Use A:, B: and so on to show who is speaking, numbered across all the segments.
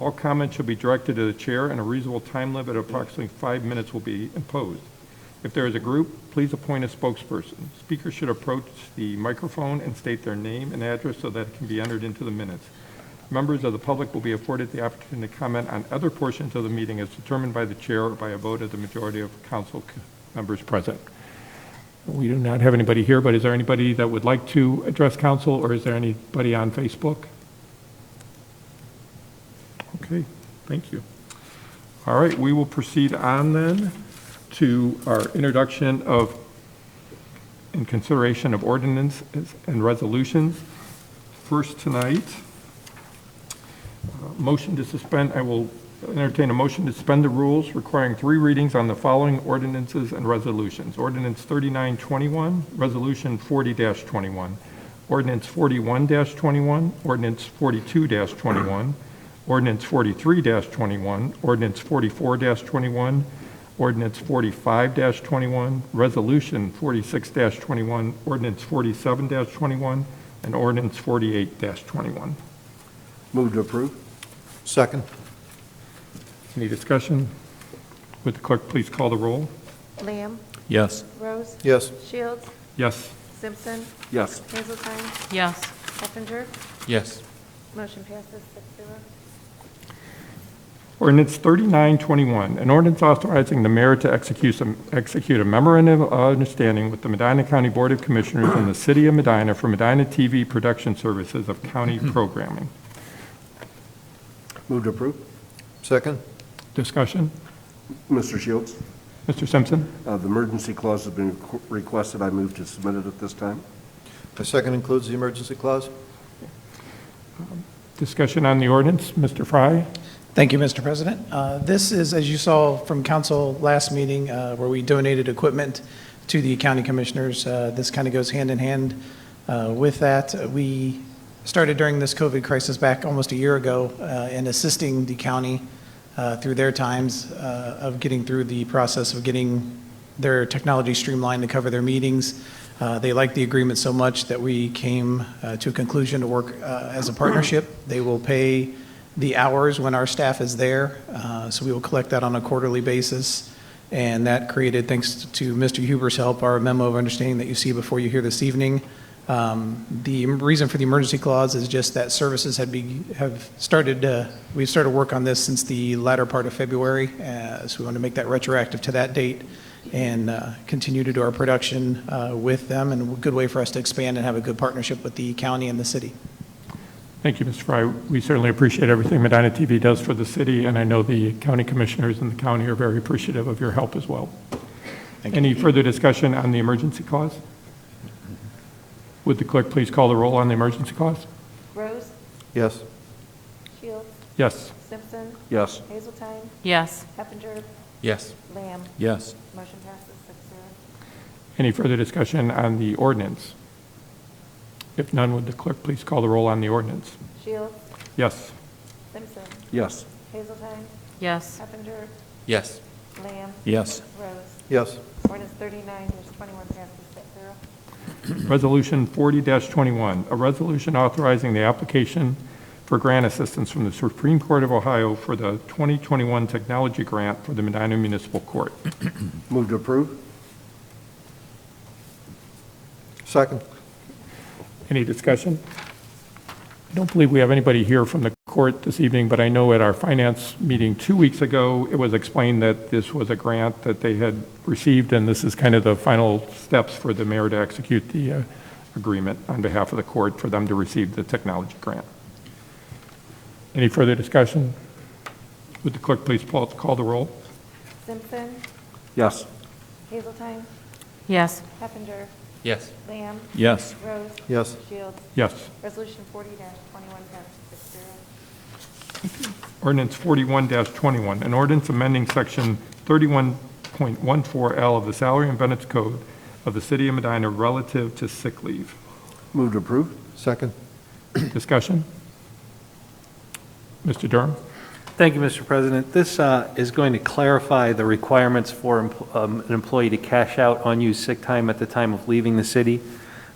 A: All comments should be directed to the chair, and a reasonable time limit of approximately five minutes will be imposed. If there is a group, please appoint a spokesperson. Speakers should approach the microphone and state their name and address so that it can be entered into the minutes. Members of the public will be afforded the opportunity to comment on other portions of the meeting as determined by the chair or by a vote of the majority of council c- members present. We do not have anybody here, but is there anybody that would like to address council, or is there anybody on Facebook? Okay, thank you. All right, we will proceed on then to our introduction of, and consideration of ordinances and resolutions. First tonight, uh, motion to suspend, I will entertain a motion to suspend the rules requiring three readings on the following ordinances and resolutions. Ordinance 3921, Resolution 40-21, Ordinance 41-21, Ordinance 42-21, Ordinance 43-21, Ordinance 44-21, Ordinance 45-21, Resolution 46-21, Ordinance 47-21, and Ordinance 48-21.
B: Move to approve. Second.
A: Any discussion? Would the clerk please call the roll?
C: Lamb,
D: Yes.
C: Rose,
B: Yes.
C: Shields,
A: Yes.
C: Simpson,
B: Yes.
C: Hazelton,
E: yes,
C: Heffinger.
D: Yes.
C: Motion passes six zero.
A: Ordinance 3921, an ordinance authorizing the mayor to execute some- execute a memorandum of understanding with the Medina County Board of Commissioners and the City of Medina for Medina TV Production Services of County Programming.
B: Move to approve. Second.
A: Discussion?
B: Mr. Shields,
A: Mr. Simpson?
B: uh, the emergency clause has been requ- requested. I move to submit it at this time.
F: The second includes the emergency clause?
A: Discussion on the ordinance? Mr. Fry?
G: Thank you, Mr. President. Uh, This is, as you saw from council last meeting, uh, where we donated equipment to the county commissioners. Uh, This kind of goes hand in hand uh, with that. We started during this COVID crisis back almost a year ago uh, in assisting the county uh, through their times uh, of getting through the process of getting their technology streamlined to cover their meetings. Uh, They liked the agreement so much that we came uh, to a conclusion to work uh, as a partnership. They will pay the hours when our staff is there, uh, so we will collect that on a quarterly basis. And that created, thanks to Mr. Huber's help, our memo of understanding that you see before you here this evening. Um, The reason for the emergency clause is just that services had be, have started, uh, we've started work on this since the latter part of February, uh, so we want to make that retroactive to that date and uh, continue to do our production uh, with them, and a good way for us to expand and have a good partnership with the county and the city.
A: Thank you, Mr. Fry. We certainly appreciate everything Medina TV does for the city, and I know the county commissioners and the county are very appreciative of your help as well. Any further discussion on the emergency clause? Would the clerk please call the roll on the emergency clause?
C: Rose,
F: Yes.
C: Shields,
A: Yes.
C: Simpson,
B: Yes.
C: Hazelton,
E: yes,
C: Heffinger,
D: Yes.
C: Lamb.
D: Yes.
C: Motion passes six zero.
A: Any further discussion on the ordinance? If none, would the clerk please call the roll on the ordinance?
C: Shields,
A: Yes.
C: Simpson,
B: Yes.
C: Hazelton,
E: yes,
C: Heffinger,
D: Yes.
C: Lamb.
D: Yes.
C: Rose.
F: Yes.
C: Ordinance thirty-nine, there's twenty-one passes six zero.
A: Resolution 40-21, a resolution authorizing the application for grant assistance from the Supreme Court of Ohio for the 2021 Technology Grant for the Medina Municipal Court.
B: Move to approve.
F: Second.
A: Any discussion? I don't believe we have anybody here from the court this evening, but I know at our finance meeting two weeks ago, it was explained that this was a grant that they had received, and this is kind of the final steps for the mayor to execute the uh, agreement on behalf of the court for them to receive the technology grant. Any further discussion? Would the clerk please pull- call the roll?
C: Simpson,
B: Yes.
C: Hazelton,
E: yes,
C: Heffinger,
D: Yes.
C: Lamb,
D: Yes.
C: Rose.
F: Yes.
C: Shields.
A: Yes.
C: Resolution forty twenty-one passes six zero.
A: Ordinance 41-21, an ordinance amending Section 31.14L of the Salary and Benefits Code of the City of Medina relative to sick leave.
B: Move to approve.
F: Second.
A: Discussion? Mr. Durham?
H: Thank you, Mr. President. This uh, is going to clarify the requirements for empl- um, an employee to cash out unused sick time at the time of leaving the city.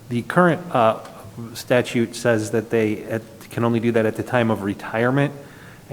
H: The current uh, statute says that they at- can only do that at the time of retirement.